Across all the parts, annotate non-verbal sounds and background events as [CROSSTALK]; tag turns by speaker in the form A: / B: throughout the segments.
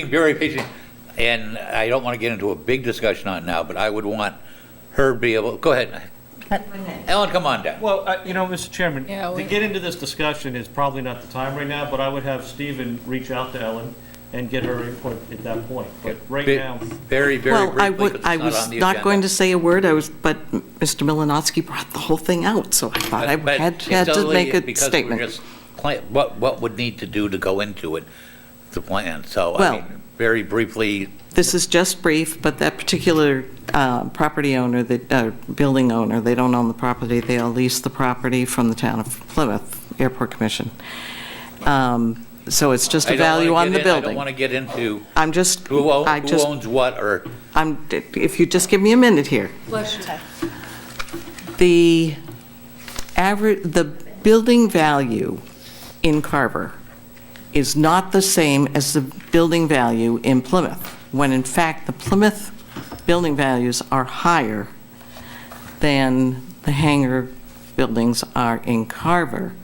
A: being very patient, and I don't want to get into a big discussion on it now, but I would want her to be able, go ahead. Ellen, come on down.
B: Well, I- you know, Mr. Chairman,
C: Yeah,
B: to
C: we-
B: get into this discussion is probably not the time right now, but I would have Stephen reach out to Ellen and get her input at that point. But right
A: Be-
B: now,
A: Very, very
D: Well, I
A: briefly,
D: would,
A: because
D: I
A: it's not
D: was
A: on the
D: not going to
A: agenda.
D: say a word, I was, but Mr. Malinowski brought the whole thing out, so I thought I
A: But- but
D: had,
A: it's
D: had to
A: only
D: make a
A: because we're
D: statement.
A: just plan- What, what would need to do to go into it, the plan, so, I
D: Well-
A: mean, very briefly,
D: This is just brief, but that particular uh, property owner, that, uh, building owner, they don't own the property, they all lease the property from the town of Plymouth Airport Commission. Um, So it's just
A: I
D: a
A: don't wanna
D: value on
A: get
D: the
A: in- I don't
D: building.
A: want to get into
D: I'm just,
A: who own-
D: I
A: who
D: just,
A: owns what, or
D: I'm, if you just give me a minute here.
C: Bless you.
D: The average, the building value in Carver is not the same as the building value in Plymouth, when in fact, the Plymouth building values are higher than the hangar buildings are in Carver.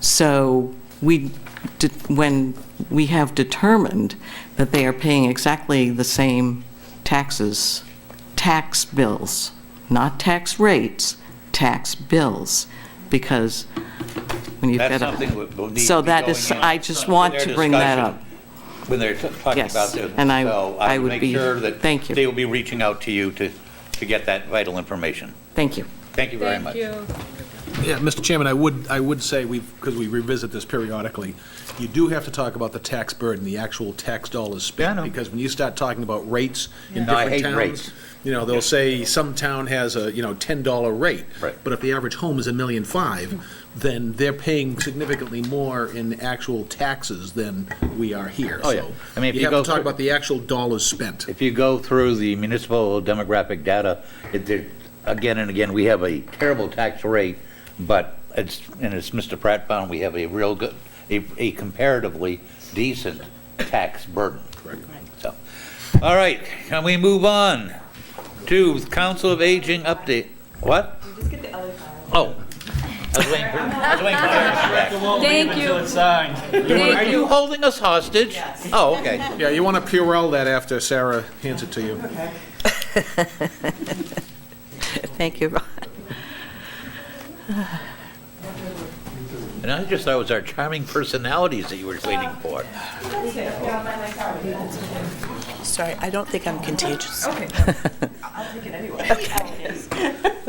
D: So we, de- when we have determined that they are paying exactly the same taxes, tax bills, not tax rates, tax bills, because when you've got a...
A: that's something we- we'll need to
D: So
A: be
D: that
A: going
D: is,
A: in
D: I
A: on
D: just
A: their
D: want to bring that
A: discussion
D: up.
A: When they're t- talking
D: Yes,
A: about this.
D: and I-
A: So
D: I would
A: make
D: be-
A: sure that
D: thank you.
A: They will be reaching out to you to, to get that vital information.
D: Thank you.
A: Thank you very much.
C: Thank you.
E: Yeah, Mr. Chairman, I would, I would say, we because we revisit this periodically, you do have to talk about the tax burden, the actual tax dollars spent.
A: Yeah, I know.
E: Because when you start talking about rates in
A: No, I
E: different
A: hate rates.
E: towns, you know, they'll say some town has a, you know, $10 rate.
A: Right.
E: But if the average home is a million five, then they're paying significantly more in actual taxes than we are here.
A: Oh, yeah.
E: So
A: I mean, if you
E: You have
A: go
E: to talk
A: through-
E: about the actual dollars spent.
A: If you go through the municipal demographic data, it, there- again and again, we have a terrible tax rate, but it's, and it's Mr. Pratt found, we have a real good, a a comparatively decent tax burden. Correct. So, all right, can we move on to Council of Aging update? What? Oh. I was waiting for- I was waiting for her to
B: I
A: correct.
B: won't leave
C: Thank
B: until
C: you.
B: it's signed.
A: Are
C: Thank
A: you
C: you.
A: holding us hostage? Oh, okay.
E: Yeah, you want to Purell that after Sarah hands it to you.
D: Thank you.
A: And I just thought it was our charming personalities that you were waiting for.
F: Sorry, I don't think I'm contagious. [LAUGHS]
A: All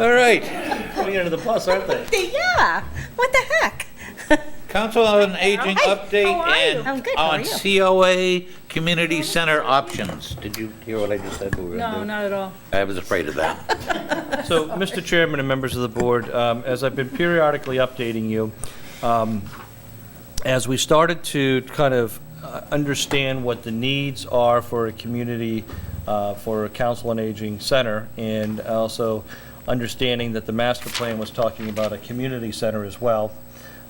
A: right,
B: Putting you under the bus, aren't they?
F: Yeah, what the heck?
A: Council on Aging
F: Hi,
A: update
F: how are you? I'm
A: and
F: good, how are
A: on COA Community Center options. Did you hear what I just said? we were gonna
C: No,
A: do?
C: not at all.
A: I was afraid
F: [LAUGHS]
A: of that.
B: So, Mr. Chairman and members of the board, um, as I've been periodically updating you, um, as we started to kind of uh, understand what the needs are for a community, uh, for a council and aging center, and also understanding that the master plan was talking about a community center as well,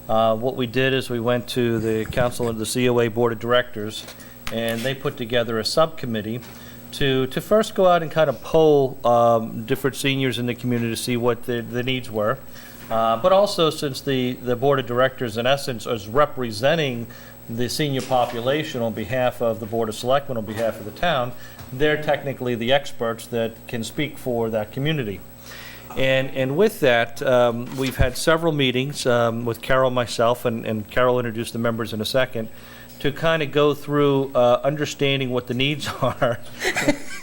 B: uh, what we did is we went to the council and the COA Board of Directors, and they put together a subcommittee to, to first go out and kind of poll um, different seniors in the community to see what the, the needs were. Uh, But also, since the, the Board of Directors, in essence, is representing the senior population on behalf of the Board of Selectmen, on behalf of the town, they're technically the experts that can speak for that community. And, and with that, um, we've had several meetings um, with Carol, myself, and and Carol introduced the members in a second, to kind of go through uh, understanding what the needs [LAUGHS] are.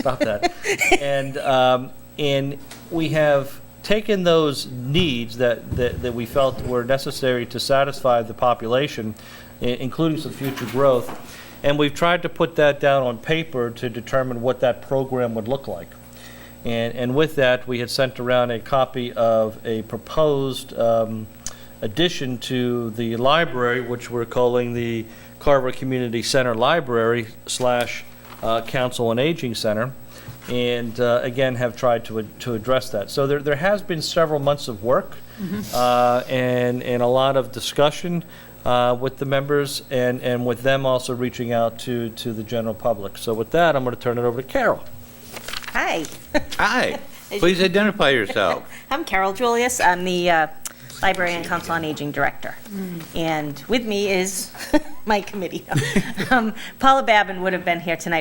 B: Stop that. And, um, and we have taken those needs that, that that we felt were necessary to satisfy the population, i- including some future growth, and we've tried to put that down on paper to determine what that program would look like. And, and with that, we had sent around a copy of a proposed um, addition to the library, which we're calling the Carver Community Center Library slash uh, Council and Aging Center, and uh, again, have tried to, ad- to address that. So there, there has been several months of work uh, and, and a lot of discussion uh, with the members and, and with them also reaching out to, to the general public. So with that, I'm going to turn it over to Carol.
F: Hi,
A: Hi, please identify yourself.
F: I'm Carol Julius. I'm the uh,
C: Library and Council on Aging Director. [LAUGHS] And with me is my committee. Um, Paula Babbin would have been here tonight,